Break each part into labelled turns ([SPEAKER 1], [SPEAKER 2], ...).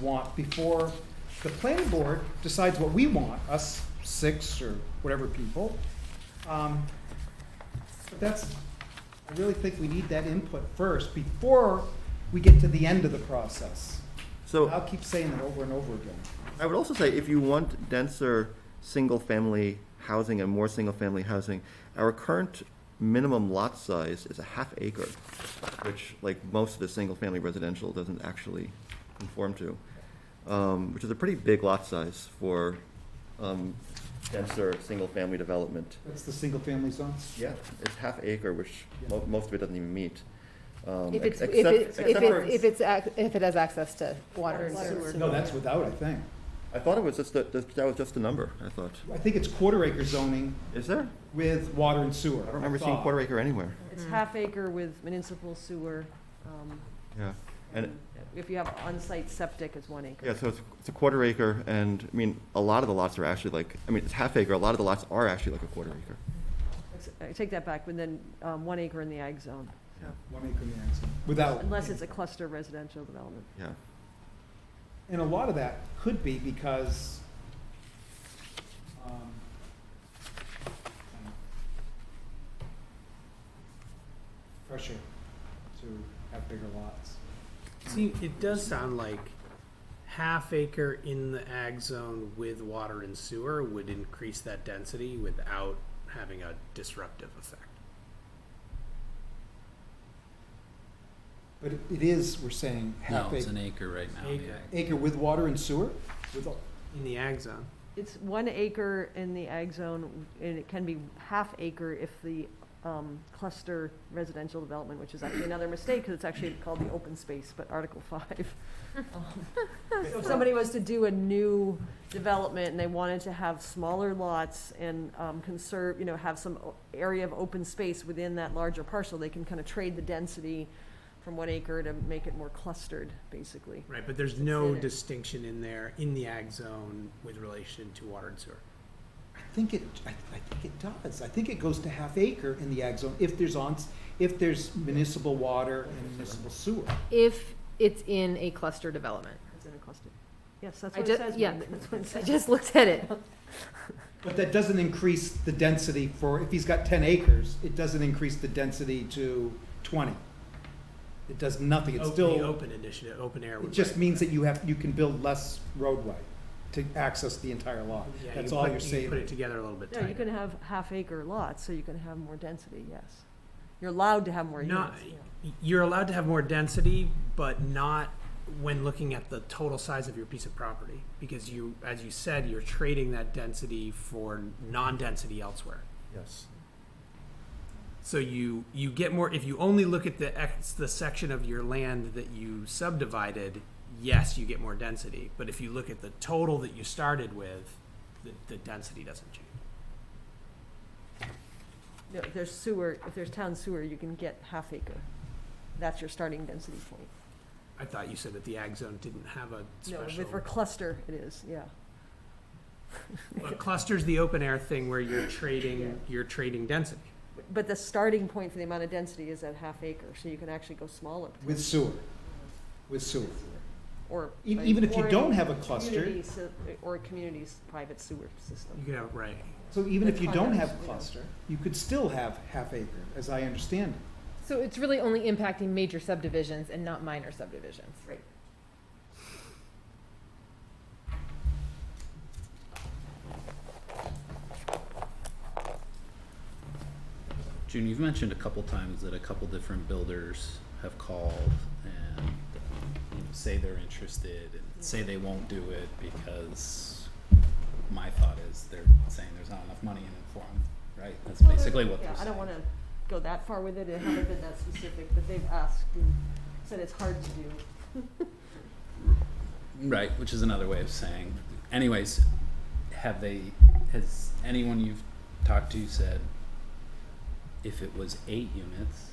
[SPEAKER 1] want before the planning board decides what we want, us six or whatever people. Um, But that's, I really think we need that input first before we get to the end of the process. I'll
[SPEAKER 2] So
[SPEAKER 1] keep saying that over and over again.
[SPEAKER 2] I would also say if you want denser single-family housing and more single-family housing, our current minimum lot size is a half acre, which like most of the single-family residential doesn't actually conform to, um, which is a pretty big lot size for um, denser single-family development.
[SPEAKER 1] That's the single-family zone.
[SPEAKER 2] Yeah, it's half acre, which mo- most of it doesn't even meet. um,
[SPEAKER 3] If it's,
[SPEAKER 2] ex-
[SPEAKER 3] if
[SPEAKER 2] except-
[SPEAKER 3] it, if
[SPEAKER 2] except for-
[SPEAKER 3] it, if it's, ac- if it has access to water and
[SPEAKER 4] Water and
[SPEAKER 3] sewer.
[SPEAKER 4] sewer.
[SPEAKER 1] No, that's without, I think.
[SPEAKER 2] I thought it was just, the- the- that was just a number, I thought.
[SPEAKER 1] I think it's quarter acre zoning
[SPEAKER 2] Is there?
[SPEAKER 1] with water and sewer.
[SPEAKER 2] I don't remember seeing quarter acre anywhere.
[SPEAKER 4] It's half acre with municipal sewer. um,
[SPEAKER 2] Yeah, and,
[SPEAKER 4] If you have on-site septic, it's one acre.
[SPEAKER 2] yeah, so it's, it's a quarter acre, and, I mean, a lot of the lots are actually like, I mean, it's half acre, a lot of the lots are actually like a quarter acre.
[SPEAKER 4] I take that back, but then um, one acre in the ag zone,
[SPEAKER 1] One acre in the ag zone, without.
[SPEAKER 4] unless it's a cluster residential development.
[SPEAKER 2] Yeah,
[SPEAKER 1] And a lot of that could be because, um, pressure to have bigger lots.
[SPEAKER 5] See, it does sound like half acre in the ag zone with water and sewer would increase that density without having a disruptive effect.
[SPEAKER 1] But it- it is, we're saying,
[SPEAKER 6] No,
[SPEAKER 1] half
[SPEAKER 6] it's an
[SPEAKER 1] acre,
[SPEAKER 6] acre right now,
[SPEAKER 5] Acre.
[SPEAKER 6] yeah.
[SPEAKER 1] acre with water and sewer? With all-
[SPEAKER 5] In the ag zone,
[SPEAKER 4] It's one acre in the ag zone, and it can be half acre if the um, cluster residential development, which is actually another mistake, because it's actually called the open space, but Article 5. Um, So if somebody was to do a new development and they wanted to have smaller lots and um, conserve, you know, have some o- area of open space within that larger parcel, they can kind of trade the density from one acre to make it more clustered, basically.
[SPEAKER 5] right, but there's no distinction in there, in the ag zone with relation to water and sewer.
[SPEAKER 1] I think it, I, I think it does. I think it goes to half acre in the ag zone if there's on, if there's municipal water and municipal sewer.
[SPEAKER 3] If it's in a cluster development.
[SPEAKER 4] It's in a cluster. Yes, that's
[SPEAKER 3] I
[SPEAKER 4] what
[SPEAKER 3] ju-
[SPEAKER 4] it says.
[SPEAKER 3] yeah.
[SPEAKER 4] That's what it
[SPEAKER 3] I
[SPEAKER 4] says.
[SPEAKER 3] just looked at it.
[SPEAKER 1] But that doesn't increase the density for, if he's got ten acres, it doesn't increase the density to twenty. It does nothing, it's
[SPEAKER 5] Open- The
[SPEAKER 1] still,
[SPEAKER 5] open initiative, open air
[SPEAKER 1] it
[SPEAKER 5] would.
[SPEAKER 1] just
[SPEAKER 5] break
[SPEAKER 1] means
[SPEAKER 5] that.
[SPEAKER 1] that you have, you can build less roadway to access the entire lot.
[SPEAKER 5] Yeah,
[SPEAKER 1] That's
[SPEAKER 5] you
[SPEAKER 1] all
[SPEAKER 5] put-
[SPEAKER 1] you're
[SPEAKER 5] you
[SPEAKER 1] saving.
[SPEAKER 5] Put it together a little bit
[SPEAKER 4] No, you
[SPEAKER 5] tighter.
[SPEAKER 4] can have half acre lots, so you can have more density, yes. You're allowed to have more
[SPEAKER 5] Not,
[SPEAKER 4] units. yeah.
[SPEAKER 5] you're allowed to have more density, but not when looking at the total size of your piece of property. Because you, as you said, you're trading that density for non-density elsewhere.
[SPEAKER 2] yes.
[SPEAKER 5] So you, you get more, if you only look at the ex, the section of your land that you subdivided, yes, you get more density. But if you look at the total that you started with, the, the density doesn't change.
[SPEAKER 4] No, if there's sewer, if there's town sewer, you can get half acre. That's your starting density point.
[SPEAKER 5] I thought you said that the ag zone didn't have a
[SPEAKER 4] No,
[SPEAKER 5] special.
[SPEAKER 4] with, for cluster, it is, yeah.
[SPEAKER 5] Well, cluster's the open air thing where you're trading, you're trading density.
[SPEAKER 4] But the starting point for the amount of density is at half acre, so you can actually go smaller.
[SPEAKER 1] With sewer, with sewer.
[SPEAKER 4] Or.
[SPEAKER 1] E- Even if you
[SPEAKER 4] or in
[SPEAKER 1] don't have a cluster,
[SPEAKER 4] communities, uh, Or a community's private sewer
[SPEAKER 5] You
[SPEAKER 4] system.
[SPEAKER 5] could have, right.
[SPEAKER 1] so even if you don't have
[SPEAKER 4] Condos, yeah.
[SPEAKER 1] cluster, you could still have half acre, as I understand it.
[SPEAKER 3] So it's really only impacting major subdivisions and not minor subdivisions.
[SPEAKER 4] Right.
[SPEAKER 6] June, you've mentioned a couple times that a couple different builders have called and you know, say they're interested and say they won't do it because my thought is they're saying there's not enough money in it for them, right? That's basically what they're
[SPEAKER 4] Yeah, I
[SPEAKER 6] saying.
[SPEAKER 4] don't wanna go that far with it, it hasn't been that specific, but they've asked and said it's hard to do.
[SPEAKER 6] Right, which is another way of saying. Anyways, have they, has anyone you've talked to said if it was eight units,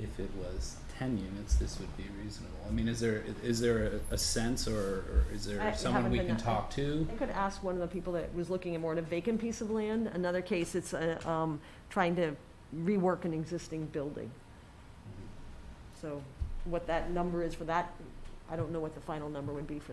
[SPEAKER 6] if it was ten units, this would be reasonable? I mean, is there, is there a, a sense or, or is
[SPEAKER 4] I-
[SPEAKER 6] there
[SPEAKER 4] it
[SPEAKER 6] someone we can
[SPEAKER 4] haven't been-
[SPEAKER 6] talk to?
[SPEAKER 4] I could ask one of the people that was looking at more at a vacant piece of land. Another case, it's uh, um, trying to rework an
[SPEAKER 1] Mm-hmm.
[SPEAKER 4] existing building. So what that number is for that I don't know what the final number would be for that.